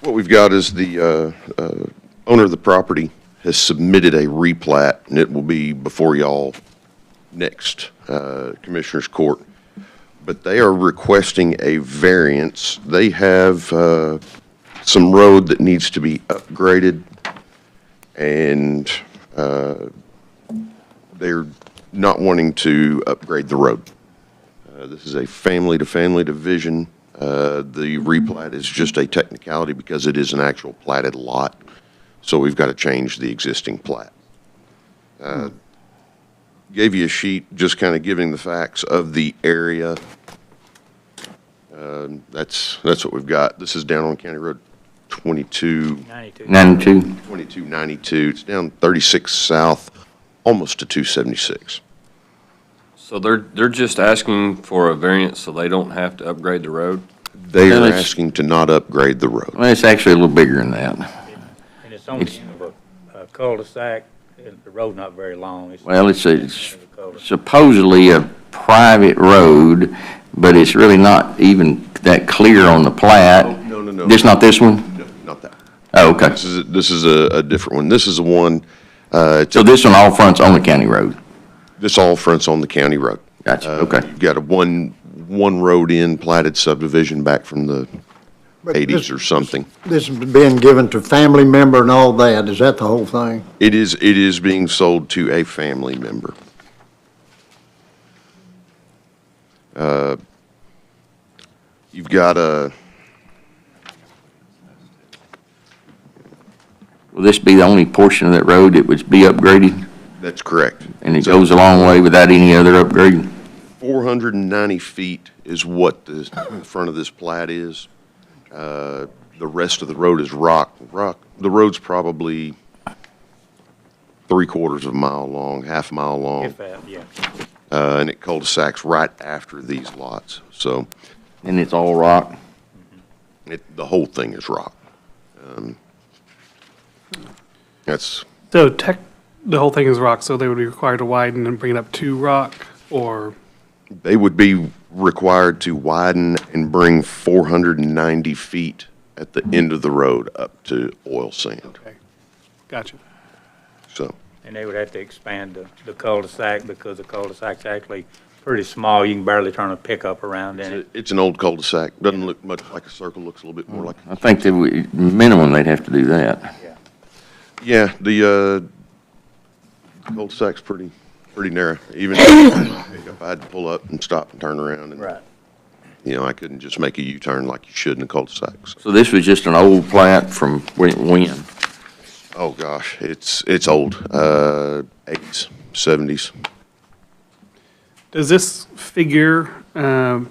What we've got is the uh, uh, owner of the property has submitted a replat, and it will be before y'all next uh, Commissioners Court. But they are requesting a variance. They have uh, some road that needs to be upgraded, and uh, they're not wanting to upgrade the road. Uh, This is a family-to-family division. Uh, The replat is just a technicality because it is an actual platted lot, so we've got to change the existing plat. Uh, Gave you a sheet, just kind of giving the facts of the area. Um, That's, that's what we've got. This is down on County Road 22, 92. 92. 2292. It's down 36 south, almost to 276. So they're, they're just asking for a variance so they don't have to upgrade the road? They Now, are let's- asking to not upgrade the road. Well, it's actually a little bigger than that. And it's on the It's- end of a a uh, cul-de-sac, and the road not very long. It's- Well, it's, it's End of a cul-de-sac. supposedly a private road, but it's really not even that clear on the plat. Oh, no, no, no. Just not this one? No, Not that. Oh, okay. This is, this is a, a different one. This is the one, uh, So this one, all fronts on the county road? this all fronts on the county road. Gotcha, Uh, okay. You've got a one, one road in platted subdivision back from the But eighties this- or something. This is being given to family member and all that, is that the whole thing? It is, it is being sold to a family member. Uh, You've got a, Will this be the only portion of that road that would be upgraded? that's correct. And it goes a long way without any other upgrade? Four hundred and ninety feet is what the the front of this plat is. Uh, The rest of the road is rock, rock. The road's probably three quarters of a mile long, half a mile long, If that, yeah. uh, and it cul-de-sacs right after these lots. So And it's all rock? it, the whole thing is rock. Um, That's, So tech, the whole thing is rock, so they would be required to widen and bring it up to rock, or, they would be required to widen and bring four hundred and ninety feet at the end of the road up to oil sand, okay, gotcha. so. And they would have to expand the, the cul-de-sac because the cul-de-sac's actually pretty small. You can barely turn a pickup around in it. It's an old cul-de-sac, doesn't look much like a circle, looks a little bit more like, I think that we, minimum, they'd have to do that. yeah, the, uh, cul-de-sac's pretty, pretty narrow, even if I had to pull up and stop and turn around and. You know, I couldn't just make a U-turn like you should in a cul-de-sac, so, So this was just an old plat from when? when? oh gosh, it's, it's old, uh, eighties, seventies. Does this figure, um,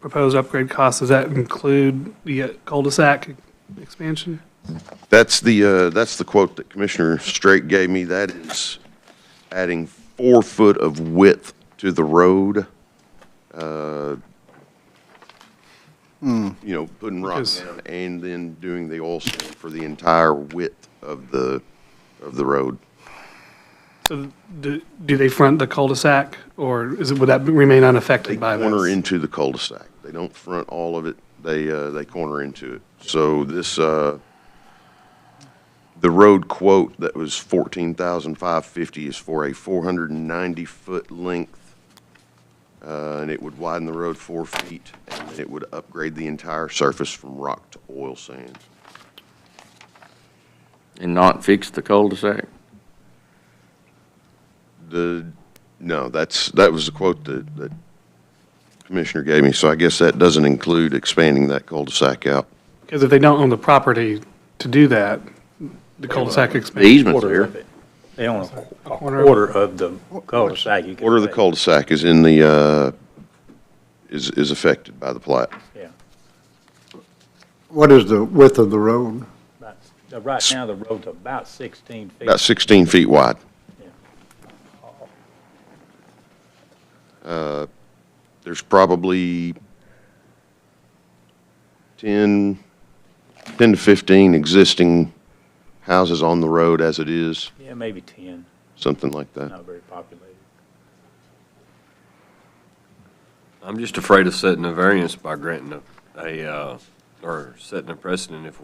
proposed upgrade cost, does that include the uh, cul-de-sac expansion? That's the, uh, that's the quote that Commissioner Straight gave me. That is adding four foot of width to the road. uh, You know, putting rock Because- down and then doing the oil sand for the entire width of the, of the road. So do, do they front the cul-de-sac, or is it, would that remain They unaffected by this? corner into the cul-de-sac. They don't front all of it. They, uh, they corner into it. So this, uh, the road quote that was fourteen thousand five fifty is for a four hundred and ninety foot length. Uh, and it would widen the road four feet and it would upgrade the entire surface from rock to oil sands. And not fix the cul-de-sac? The, no, that's, that was the quote that, that Commissioner gave me. So I guess that doesn't include expanding that cul-de-sac out. Because if they don't own the property to do that, the cul-de-sac The expansion. easement's Quarter there. of it. They own a qu- a Corner. quarter of the cul-de-sac. you could Order of the say. cul-de-sac is in the, uh, is, is affected by the plat. Yeah. What is the width of the road? About- uh, Right now, the road's about 16 feet. About 16 feet wide. Uh, There's probably 10, 10 to 15 existing houses on the road as it is, Yeah, maybe 10, something like that. not very populated. I'm just afraid of setting a variance by granting a, a, uh, or setting a precedent if